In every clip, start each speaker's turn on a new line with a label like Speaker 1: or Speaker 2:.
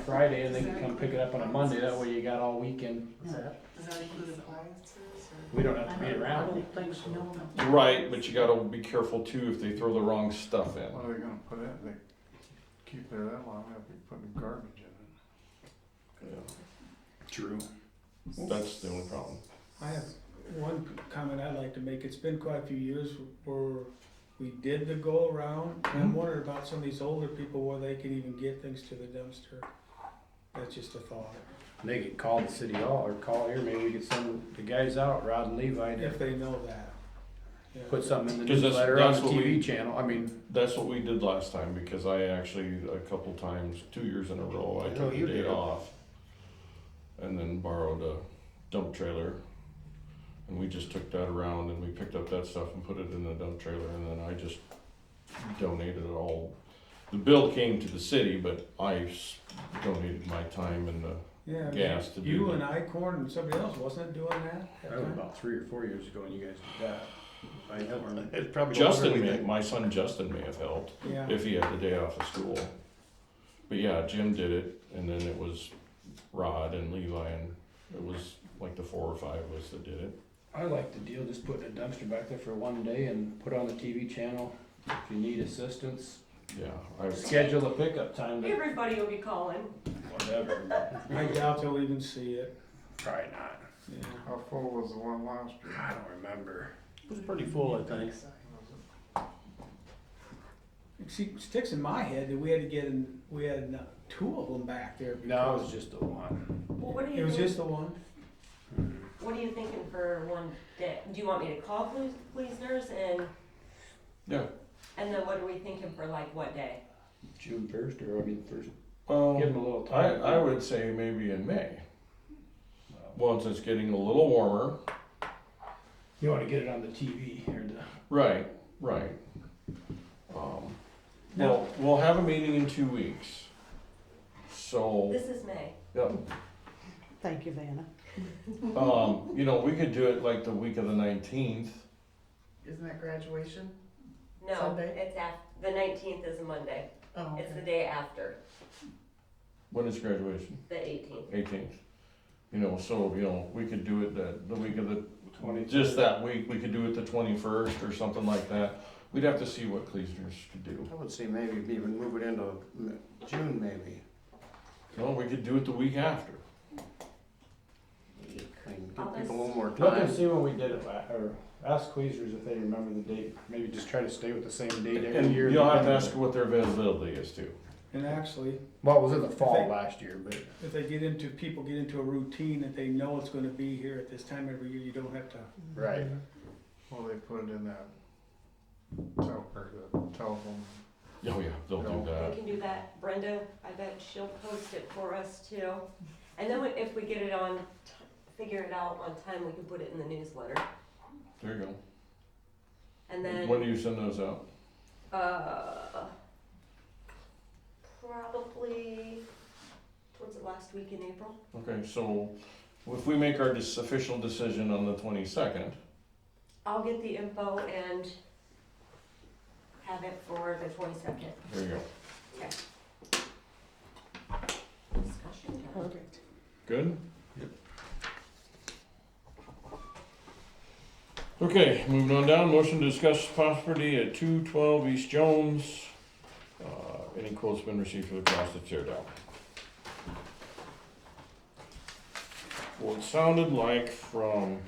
Speaker 1: Friday and they can come pick it up on a Monday, that way you got all weekend.
Speaker 2: Does that include appliances
Speaker 1: We don't have to be
Speaker 3: I
Speaker 1: around.
Speaker 3: don't think so.
Speaker 4: Right, but you gotta be careful too if they throw the wrong stuff in.
Speaker 5: What are they gonna put in? They keep there that long, they'll be putting garbage in it.
Speaker 1: True.
Speaker 4: That's the only problem.
Speaker 6: I have one comment I'd like to make. It's been quite a few years where we did the go around. And I'm wondering about some of these older people where they can even get things to the dumpster. That's just a thought.
Speaker 1: They could call the city hall or call here, maybe we could send the guys out, Rod and Levi, to
Speaker 6: If they know that. Yeah.
Speaker 1: put something in the
Speaker 4: 'Cause that's-
Speaker 1: newsletter on the
Speaker 4: that's what we-
Speaker 1: TV channel, I mean.
Speaker 4: That's what we did last time because I actually, a couple times, two years in a row, I
Speaker 6: Oh,
Speaker 1: I know
Speaker 4: took
Speaker 1: you
Speaker 4: a day
Speaker 1: did.
Speaker 4: off. And then borrowed a dump trailer. And we just took that around and we picked up that stuff and put it in the dump trailer and then I just donated it all. The bill came to the city, but I s- donated my time and the,
Speaker 6: Yeah, I mean,
Speaker 4: gas to do
Speaker 6: you
Speaker 4: that.
Speaker 6: and Icorn and somebody else, wasn't it doing that?
Speaker 1: That
Speaker 6: at
Speaker 1: was
Speaker 6: time?
Speaker 1: about three or four years ago when you guys did that. I don't remember.
Speaker 7: It's probably
Speaker 4: Justin may, my son Justin may have helped.
Speaker 6: Yeah.
Speaker 4: if he had the day off of school. But yeah, Jim did it, and then it was Rod and Levi, and it was like the four or five of us that did it.
Speaker 1: I like the deal, just putting a dumpster back there for one day and put on the TV channel. If you need assistance,
Speaker 4: Yeah, I
Speaker 1: schedule a pickup time to
Speaker 3: Everybody will be calling.
Speaker 1: whatever.
Speaker 6: I doubt they'll even see it.
Speaker 1: Probably not.
Speaker 6: Yeah.
Speaker 5: How full was the one last year?
Speaker 1: I don't remember.
Speaker 7: It was pretty full, I think.
Speaker 5: Was it-
Speaker 6: See, sticks in my head that we had to get in, we had uh, two of them back there.
Speaker 1: No, it was
Speaker 6: because-
Speaker 1: just the one.
Speaker 3: Well, what do
Speaker 6: It
Speaker 3: you
Speaker 6: was
Speaker 3: think,
Speaker 6: just the one?
Speaker 3: what are you thinking for one day? Do you want me to call police, police nurse and,
Speaker 4: yeah.
Speaker 3: and then what are we thinking for like what day?
Speaker 1: June first or I mean first. Give
Speaker 4: Well,
Speaker 1: them a little
Speaker 4: I,
Speaker 1: time.
Speaker 4: Um, I would say maybe in May. Once it's getting a little warmer.
Speaker 1: You want to get it on the TV or the.
Speaker 4: Right, right. Um,
Speaker 6: No.
Speaker 4: well, we'll have a meeting in two weeks. So,
Speaker 3: This is May.
Speaker 4: yeah,
Speaker 2: Thank you, Vanna.
Speaker 4: um, you know, we could do it like the week of the nineteenth.
Speaker 2: Isn't that graduation?
Speaker 3: No,
Speaker 2: Sunday?
Speaker 3: it's af, the nineteenth is a Monday.
Speaker 2: Oh,
Speaker 3: It's the day after,
Speaker 4: When is graduation?
Speaker 3: the eighteenth.
Speaker 4: eighteenth. You know, so, you know, we could do it the, the week of the,
Speaker 1: 20th.
Speaker 4: just that week, we could do it the twenty-first or something like that. We'd have to see what Cleasners could do.
Speaker 7: I would say maybe even move it into m- June maybe.
Speaker 4: No, we could do it the week after.
Speaker 7: I mean, give people a little more
Speaker 1: Let them
Speaker 7: time.
Speaker 1: see when we did it, la- or ask Queasers if they remember the date. Maybe just try to stay with the same date every
Speaker 4: And
Speaker 1: year.
Speaker 4: you'll have to ask what their availability is too.
Speaker 6: And actually,
Speaker 1: Well, it was in the fall
Speaker 6: Thank-
Speaker 1: last year, but
Speaker 6: if they get into, people get into a routine that they know it's gonna be here at this time every year, you don't have to.
Speaker 1: right.
Speaker 5: Well, they put it in that tel- or the telephone.
Speaker 4: Oh, yeah, they'll do
Speaker 3: We
Speaker 4: that.
Speaker 3: can do that. Brenda, I bet she'll post it for us too. And then we- if we get it on, t- figure it out on time, we can put it in the newsletter.
Speaker 4: There you
Speaker 3: And
Speaker 4: go.
Speaker 3: then.
Speaker 4: When do you send those out?
Speaker 3: Uh, probably towards the last week in April.
Speaker 4: Okay, so if we make our dis- official decision on the twenty-second,
Speaker 3: I'll get the info and have it for the twenty-second.
Speaker 4: there you go.
Speaker 3: Discussion time.
Speaker 2: Perfect.
Speaker 4: Good? Okay, moving on down, motion to discuss property at two twelve East Jones. Uh, Any quotes been received for the cost of tear down? Well, it sounded like from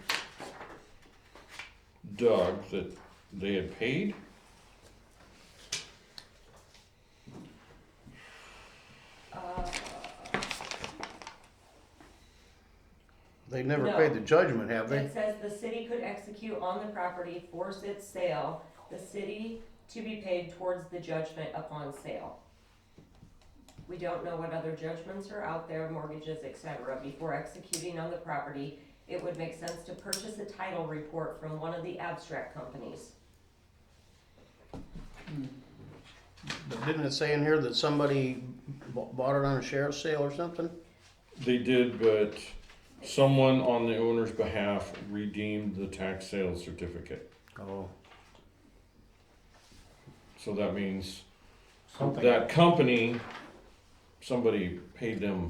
Speaker 4: Doug that they had paid.
Speaker 3: Uh,
Speaker 7: They never
Speaker 3: No.
Speaker 7: paid the judgment, have they?
Speaker 3: It says the city could execute on the property, force its sale, the city to be paid towards the judgment upon sale. We don't know what other judgments are out there, mortgages, et cetera, before executing on the property. It would make sense to purchase a title report from one of the abstract companies.
Speaker 7: But Didn't it say in here that somebody b- bought it on a sheriff's sale or something?
Speaker 4: They did, but someone on the owner's behalf redeemed the tax sale certificate.
Speaker 7: Oh.
Speaker 4: So that means
Speaker 1: Something.
Speaker 4: that company somebody paid them